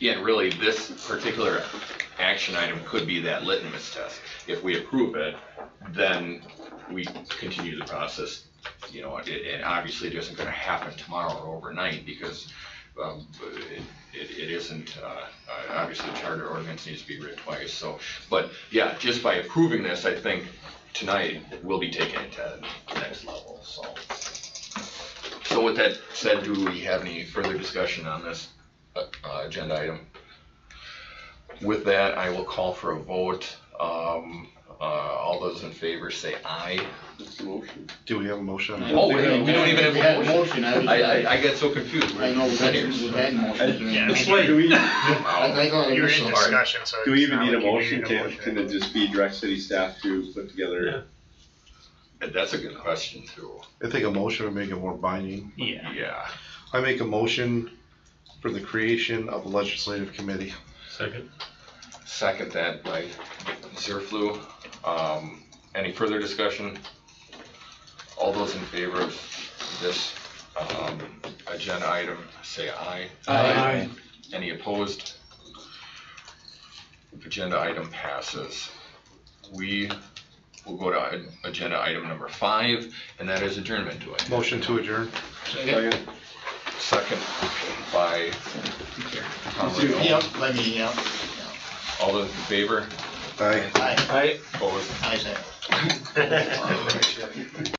Yeah, and really, this particular action item could be that litmus test. If we approve it, then we continue the process, you know, it, it obviously it isn't gonna happen tomorrow or overnight because, um, it, it it isn't, uh, uh, obviously charter ordinance needs to be read twice, so. But yeah, just by approving this, I think tonight we'll be taking it to the next level, so. So with that said, do we have any further discussion on this uh, uh, agenda item. With that, I will call for a vote. Um, uh, all those in favor say aye. That's the motion. Do we have a motion? on that? Oh, wait, we don't even have a had motion. I was, I, I, I I got so confused. know, Ten we had, years. we had motion. Yeah. I It's Do we, Um, think I You're in initially- discussion, so. Do we even it's need a not like you motion? Can, can it just be direct city staff to put together? That's a good question too. I think a motion would make it more binding. Yeah. Yeah. I make a motion for the creation of a legislative committee. Second. Second that by Zerflu. Um, any further discussion? All those in favor of this, um, agenda item, say aye. Aye. Any opposed? Agenda item passes. We will go to i- agenda item number five, and that is adjournment. Do I? Motion to adjourn. Second. Second by Tom Yep, Riddle. let me, yep, All those in favor? Aye. I, Opposed? I say. Aye. All right.